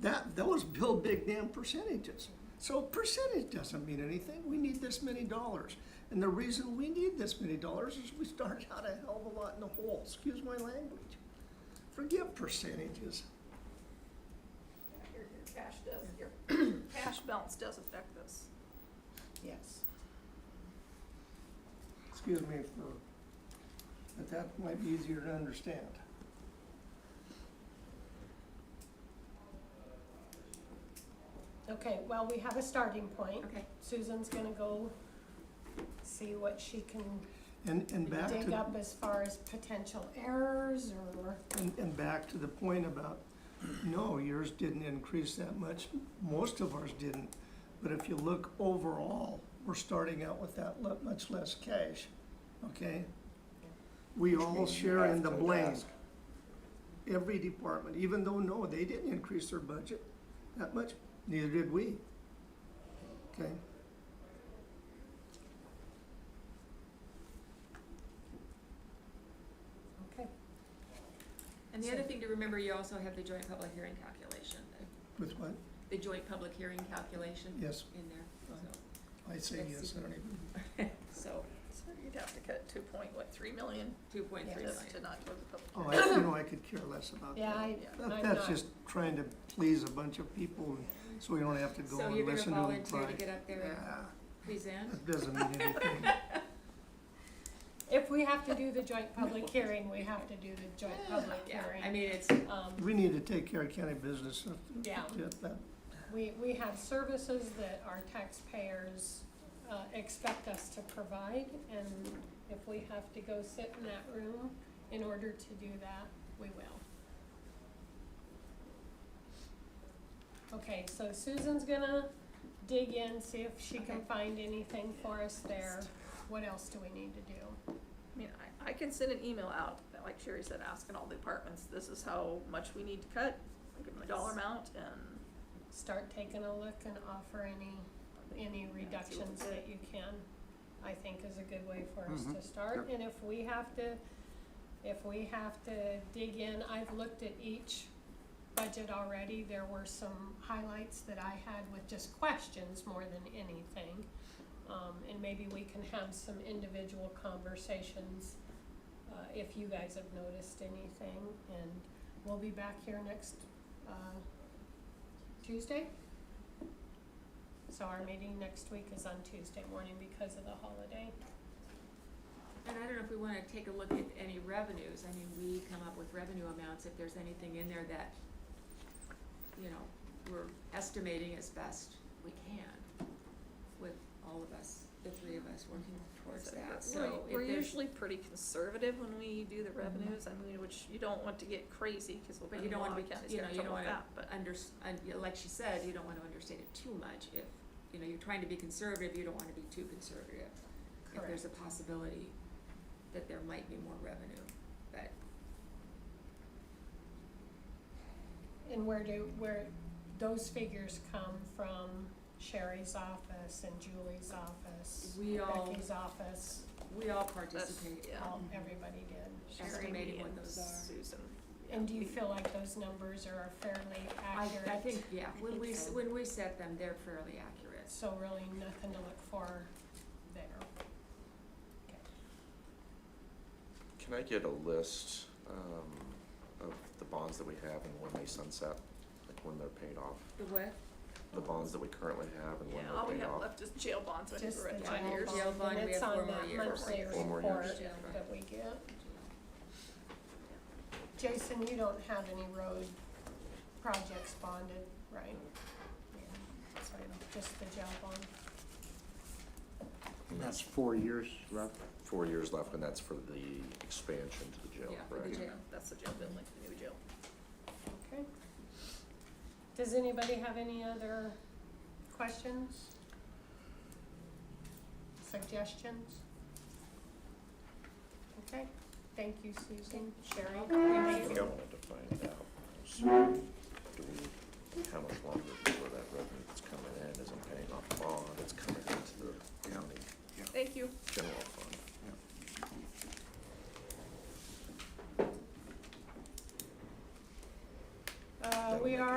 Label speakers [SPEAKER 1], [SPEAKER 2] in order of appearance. [SPEAKER 1] that, those bill big damn percentages. So percentage doesn't mean anything. We need this many dollars. And the reason we need this many dollars is we started out a hell of a lot in the hole. Excuse my language. Forget percentages.
[SPEAKER 2] Your, your cash does, your cash balance does affect this.
[SPEAKER 3] Yes.
[SPEAKER 1] Excuse me for, but that might be easier to understand.
[SPEAKER 4] Okay, well, we have a starting point.
[SPEAKER 3] Okay.
[SPEAKER 4] Susan's gonna go see what she can
[SPEAKER 1] And, and back to.
[SPEAKER 4] dig up as far as potential errors or,
[SPEAKER 1] And, and back to the point about, no, yours didn't increase that much, most of ours didn't. But if you look overall, we're starting out with that le- much less cash, okay? We all
[SPEAKER 5] means you
[SPEAKER 1] share
[SPEAKER 5] have
[SPEAKER 1] in the
[SPEAKER 5] to
[SPEAKER 1] blame.
[SPEAKER 5] ask.
[SPEAKER 1] Every department, even though, no, they didn't increase their budget that much, neither did we. Okay,
[SPEAKER 4] okay,
[SPEAKER 6] And the other thing to remember, you also have the joint public hearing calculation, the,
[SPEAKER 1] with what?
[SPEAKER 6] the joint public hearing calculation
[SPEAKER 1] Yes,
[SPEAKER 6] in there,
[SPEAKER 1] I say yes, I don't even,
[SPEAKER 6] so,
[SPEAKER 2] So you'd have to cut two point, what, three million
[SPEAKER 6] so, two point three million.
[SPEAKER 2] just to not go to the public.
[SPEAKER 1] oh, I, you know, I could care less about that.
[SPEAKER 4] yeah, I,
[SPEAKER 2] Yeah.
[SPEAKER 4] I'm
[SPEAKER 1] That-
[SPEAKER 4] not.
[SPEAKER 1] That's just trying to please a bunch of people, so we don't have to go
[SPEAKER 6] So
[SPEAKER 1] and
[SPEAKER 6] you're gonna
[SPEAKER 1] listen to them
[SPEAKER 6] volunteer to
[SPEAKER 1] cry.
[SPEAKER 6] get up there and
[SPEAKER 1] Yeah,
[SPEAKER 6] present?
[SPEAKER 1] That doesn't mean anything.
[SPEAKER 4] If we have to do the joint public hearing, we have to do the joint public
[SPEAKER 6] Yeah,
[SPEAKER 4] hearing.
[SPEAKER 6] I mean, it's,
[SPEAKER 4] Um,
[SPEAKER 1] We need to take care of county business. if- if
[SPEAKER 4] Yeah.
[SPEAKER 1] that- that-
[SPEAKER 4] we, we have services that our taxpayers, uh, expect us to provide, and if we have to go sit in that room in order to do that, we will. Okay, so Susan's gonna dig in, see if she can
[SPEAKER 2] Okay.
[SPEAKER 4] find anything for us there. What else do we need to do?
[SPEAKER 2] I mean, I, I can send an email out, like Sherry said, asking all the departments, this is how much we need to cut, give them a dollar amount and.
[SPEAKER 4] Start taking a look and offer any, any reductions that you can, I think is a good way for us to start. And if we have to, if we have to dig in, I've looked at each budget already. There were some highlights that I had with just questions more than anything. Um, and maybe we can have some individual conversations, uh, if you guys have noticed anything. And we'll be back here next, uh, Tuesday. So our meeting next week is on Tuesday morning because of the holiday.
[SPEAKER 6] and I don't know if we wanna take a look at any revenues, I mean, we come up with revenue amounts, if there's anything in there that, you know, we're estimating as best we can with all of us, the three of us working towards that, so if there's.
[SPEAKER 2] We're usually pretty conservative when we do the revenues, I mean, which you don't want to get crazy, cause we'll
[SPEAKER 6] But
[SPEAKER 2] be
[SPEAKER 6] you
[SPEAKER 2] in a
[SPEAKER 6] don't
[SPEAKER 2] lot
[SPEAKER 6] wanna
[SPEAKER 2] of
[SPEAKER 6] be-
[SPEAKER 2] counties
[SPEAKER 6] you
[SPEAKER 2] have
[SPEAKER 6] know, you
[SPEAKER 2] trouble
[SPEAKER 6] don't
[SPEAKER 2] with
[SPEAKER 6] wanna
[SPEAKER 2] that, but.
[SPEAKER 6] under, un- yeah, like she said, you don't wanna understate it too much if, you know, you're trying to be conservative, you don't wanna be too conservative. If there's a possibility that there might be more revenue, but
[SPEAKER 4] And where do, where, those figures come from Sherry's office and Julie's office,
[SPEAKER 6] we all,
[SPEAKER 4] Becky's office,
[SPEAKER 6] we all
[SPEAKER 2] That's-
[SPEAKER 6] participate.
[SPEAKER 2] yeah.
[SPEAKER 4] all, everybody did.
[SPEAKER 2] Sherry,
[SPEAKER 6] estimating
[SPEAKER 2] me,
[SPEAKER 6] what
[SPEAKER 2] and
[SPEAKER 6] those are.
[SPEAKER 2] Susan. yeah.
[SPEAKER 4] And do you feel like those numbers are fairly
[SPEAKER 6] I,
[SPEAKER 4] accurate?
[SPEAKER 6] I think, yeah, when
[SPEAKER 3] think
[SPEAKER 6] we, s-
[SPEAKER 3] so.
[SPEAKER 6] when we set them, they're fairly accurate.
[SPEAKER 4] So really nothing to look for there.
[SPEAKER 5] Can I get a list um, of the bonds that we have and when they sunset, like when they're paid off?
[SPEAKER 6] The what?
[SPEAKER 5] The bonds that we currently have and when
[SPEAKER 2] Yeah, all
[SPEAKER 5] they're
[SPEAKER 2] we
[SPEAKER 5] paid
[SPEAKER 2] have
[SPEAKER 6] uh,
[SPEAKER 5] off?
[SPEAKER 2] left is jail bonds, which
[SPEAKER 4] Just
[SPEAKER 2] we're
[SPEAKER 4] the
[SPEAKER 2] at
[SPEAKER 6] five
[SPEAKER 2] five
[SPEAKER 4] general
[SPEAKER 2] years.
[SPEAKER 6] Jail
[SPEAKER 4] fund,
[SPEAKER 6] bond,
[SPEAKER 4] and
[SPEAKER 6] we
[SPEAKER 4] it's
[SPEAKER 6] have four
[SPEAKER 4] on
[SPEAKER 6] more
[SPEAKER 4] that
[SPEAKER 6] years.
[SPEAKER 4] monthly
[SPEAKER 5] Four more years,
[SPEAKER 4] report
[SPEAKER 6] yeah.
[SPEAKER 4] that we get. Jason, you don't have any road projects bonded, right? Yeah, So just the jail bond.
[SPEAKER 5] And
[SPEAKER 7] That's four years left.
[SPEAKER 5] Four years left, and that's for the expansion to the jail,
[SPEAKER 6] Yeah, for the
[SPEAKER 5] right?
[SPEAKER 6] jail.
[SPEAKER 2] That's the jail building, the new jail.
[SPEAKER 4] Okay. Does anybody have any other questions? Suggestions? Okay, thank you, Susan, Sherry.
[SPEAKER 5] I think I wanted to find out.
[SPEAKER 4] Uh,